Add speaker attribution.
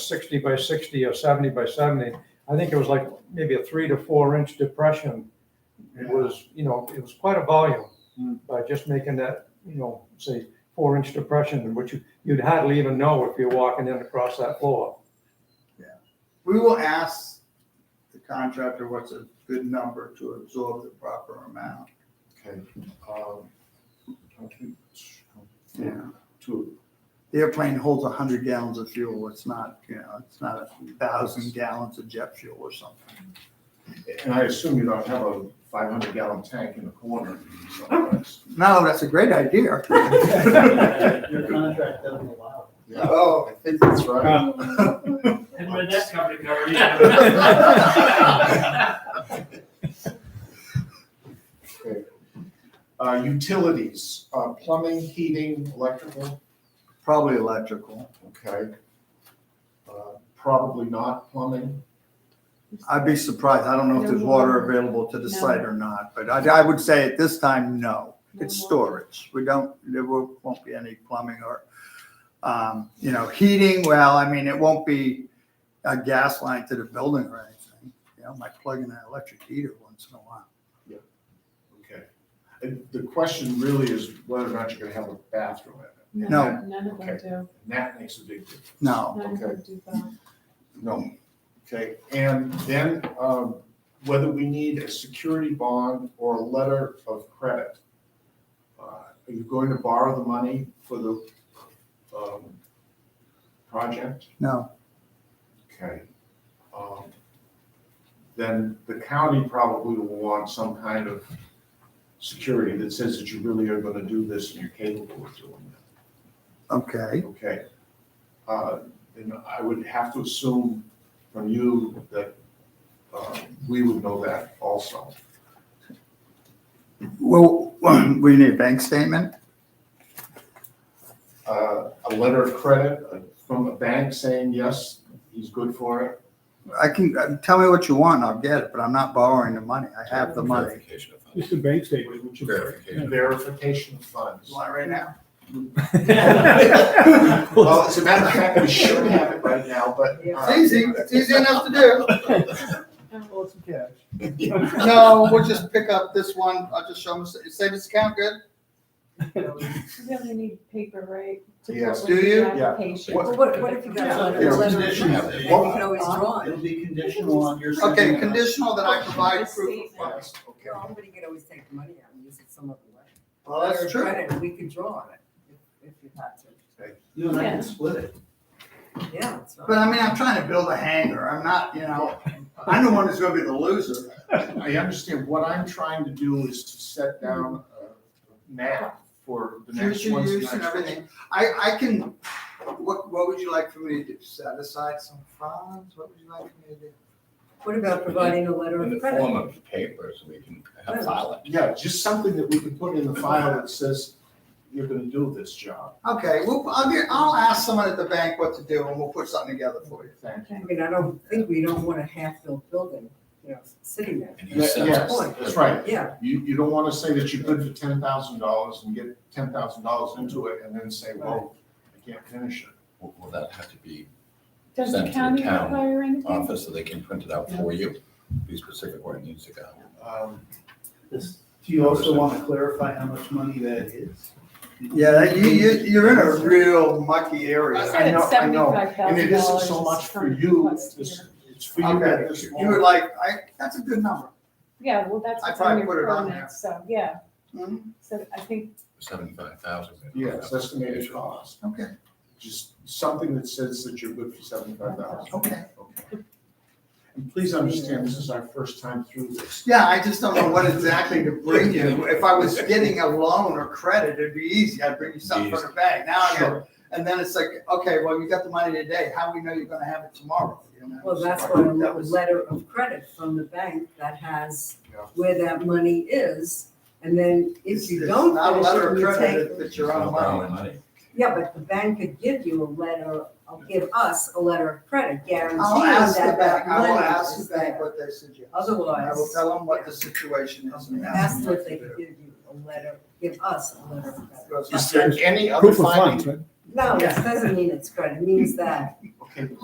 Speaker 1: sixty by sixty or seventy by seventy. I think it was like maybe a three to four inch depression. It was, you know, it was quite a volume
Speaker 2: Hmm.
Speaker 1: by just making that, you know, say four inch depression, which you, you'd hardly even know if you're walking in across that floor.
Speaker 2: We will ask the contractor what's a good number to absorb the proper amount.
Speaker 3: Okay. um, I think it's-
Speaker 2: Yeah.
Speaker 3: Two.
Speaker 2: The airplane holds hundred gallons of fuel. It's not, you know, it's not a thousand gallons of jet fuel or something.
Speaker 3: And I assume you don't have a five hundred gallon tank in the corner someplace.
Speaker 2: No, that's a great idea.
Speaker 4: Your contract doesn't allow
Speaker 3: Yeah,
Speaker 2: Oh,
Speaker 3: I think that's right.
Speaker 4: it. And when that company covered
Speaker 3: Okay. Uh, utilities, uh, plumbing, heating, electrical,
Speaker 2: probably electrical.
Speaker 3: okay. Uh, Probably not plumbing,
Speaker 2: I'd be surprised. I don't know if there's
Speaker 5: No.
Speaker 2: water available to the site or not, but I, I would say at this time, no. It's
Speaker 5: No.
Speaker 2: storage. We don't, there wo- won't be any plumbing or, um, you know, heating. Well, I mean, it won't be a gas line to the building or anything. You know, might plug in an electric heater once in a while.
Speaker 3: okay. And the question really is whether or not you're gonna have a bathroom in it.
Speaker 2: No.
Speaker 5: None of them
Speaker 3: Okay.
Speaker 5: do.
Speaker 3: And that makes a big difference.
Speaker 2: No,
Speaker 5: None of them do that.
Speaker 3: No. Okay, and then um, whether we need a security bond or a letter of credit. Uh, Are you going to borrow the money for the um, project?
Speaker 2: no.
Speaker 3: Okay. Um, Then the county probably will want some kind of security that says that you really are going to do this and you're capable of doing it.
Speaker 2: Okay.
Speaker 3: Okay. Uh, Then I would have to assume from you that uh, we would know that also.
Speaker 2: Well, we need a bank statement.
Speaker 3: Uh, A letter of credit uh, from a bank saying, yes, he's good for it.
Speaker 2: I can, uh, tell me what you want and I'll get it, but I'm not borrowing the money. I have the money.
Speaker 6: Verification of funds.
Speaker 7: Just a bank statement.
Speaker 3: Would you-
Speaker 6: Verification.
Speaker 3: Verification of funds.
Speaker 2: want it right now?
Speaker 3: Well, as a matter of fact, we should have it right now, but. uh,
Speaker 2: It's easy. It's easy enough to do.
Speaker 5: No.
Speaker 2: No, we'll just pick up this one. I'll just show them, savings account, good?
Speaker 5: You really need paper, right? to put
Speaker 3: Yes.
Speaker 2: Do
Speaker 5: with the
Speaker 2: you?
Speaker 3: Yeah.
Speaker 5: Application.
Speaker 3: What-
Speaker 8: Well, what, what if you got a letter?
Speaker 3: Yeah,
Speaker 8: a letter of
Speaker 3: condition.
Speaker 8: credit? You
Speaker 3: Well,
Speaker 8: can always draw
Speaker 4: It'll
Speaker 8: it.
Speaker 4: be conditional on your.
Speaker 2: Okay,
Speaker 4: sending us-
Speaker 2: conditional that I provide proof of funds.
Speaker 3: yes, okay.
Speaker 8: Well, somebody could always take the money out and use it some other way.
Speaker 2: Well, that's
Speaker 8: Letter of
Speaker 2: true.
Speaker 8: credit, We could draw on it if, if you had to.
Speaker 4: You and I can split it.
Speaker 8: Yeah. it's not-
Speaker 2: But I mean, I'm trying to build a hangar. I'm not, you know, I'm the one who's gonna be the loser.
Speaker 3: I understand. What I'm trying to do is to set down a map for the next
Speaker 2: Future
Speaker 3: one's
Speaker 2: use and
Speaker 3: next-
Speaker 2: everything. I, I can, what, what would you like for me to do? Set aside some funds? What would you like for me to do?
Speaker 8: What about providing a letter
Speaker 6: In
Speaker 8: of
Speaker 6: the form
Speaker 8: credit?
Speaker 6: of papers, we can have file it.
Speaker 3: Yeah, just something that we can put in the file that says, you're gonna do this job.
Speaker 2: Okay, well, I'll get, I'll ask someone at the bank what to do and we'll put something together for you.
Speaker 3: Thank
Speaker 8: I mean, I don't think we don't want a half-built building, you know, sitting there.
Speaker 6: And
Speaker 3: you.
Speaker 6: he
Speaker 3: Yeah,
Speaker 6: sends
Speaker 3: Yes,
Speaker 6: it.
Speaker 3: that's right.
Speaker 8: Yeah,
Speaker 3: You, you don't wanna say that you're good for ten thousand dollars and get ten thousand dollars into it and then say, well, I can't finish it.
Speaker 6: Will will that have to be
Speaker 5: Does the
Speaker 6: Send to the
Speaker 5: county
Speaker 6: town
Speaker 5: require anything?
Speaker 6: office so they can print it out for you? Be specific where it needs to go.
Speaker 3: Um,
Speaker 4: This- Do you also want to clarify how much money that is?
Speaker 2: Yeah, you, you, you're in a real mucky area.
Speaker 5: I
Speaker 3: I
Speaker 5: said
Speaker 3: know,
Speaker 5: it's
Speaker 3: I know.
Speaker 5: seventy-five
Speaker 3: And
Speaker 5: thousand
Speaker 3: it isn't
Speaker 5: dollars.
Speaker 3: so much for you, it's, it's for you
Speaker 2: Okay.
Speaker 3: at this
Speaker 2: You would
Speaker 3: moment.
Speaker 2: like, I, that's a good number.
Speaker 5: Yeah, well, that's
Speaker 2: I
Speaker 5: what's on
Speaker 2: probably put
Speaker 5: your
Speaker 2: it on there.
Speaker 5: permit, so, yeah,
Speaker 3: Hmm?
Speaker 5: so I think,
Speaker 6: Seventy-five thousand.
Speaker 3: Yes, estimated cost.
Speaker 2: Okay,
Speaker 3: Just something that says that you're good for seventy-five thousand.
Speaker 2: okay.
Speaker 3: And please understand, this is our first time through this.
Speaker 2: Yeah, I just don't know what exactly to bring you. If I was getting a loan or credit, it'd be easy. I'd bring you something from the bank. Now I got,
Speaker 3: Sure.
Speaker 2: and then it's like, okay, well, you got the money today. How we know you're gonna have it tomorrow? You know?
Speaker 8: well, that's
Speaker 2: That
Speaker 8: why a le-
Speaker 2: was-
Speaker 8: letter of credit from the bank that has
Speaker 3: Yeah.
Speaker 8: where that money is. And then if you
Speaker 2: It's
Speaker 8: don't
Speaker 2: Not a
Speaker 8: finish
Speaker 2: letter
Speaker 8: it,
Speaker 2: of
Speaker 8: you
Speaker 2: credit,
Speaker 8: take
Speaker 2: it's- it's your own money.
Speaker 8: Yeah, but the bank could give you a letter, or give us a letter of credit guaranteeing
Speaker 2: I'll ask the
Speaker 8: that
Speaker 2: bank,
Speaker 8: that
Speaker 2: I will
Speaker 8: money
Speaker 2: ask
Speaker 8: is
Speaker 2: the bank
Speaker 8: there.
Speaker 2: what they suggest. I will
Speaker 8: Otherwise,
Speaker 2: tell them what the situation is and ask
Speaker 8: ask
Speaker 2: them
Speaker 8: them if
Speaker 2: what
Speaker 8: they
Speaker 2: to
Speaker 8: could
Speaker 2: do.
Speaker 8: give you a letter, give us a letter of credit.
Speaker 2: Because
Speaker 3: Is there any other
Speaker 7: Proof of funds,
Speaker 3: finding?
Speaker 7: right?
Speaker 8: No, it
Speaker 2: Yeah.
Speaker 8: doesn't mean it's credit, it means that
Speaker 3: Okay,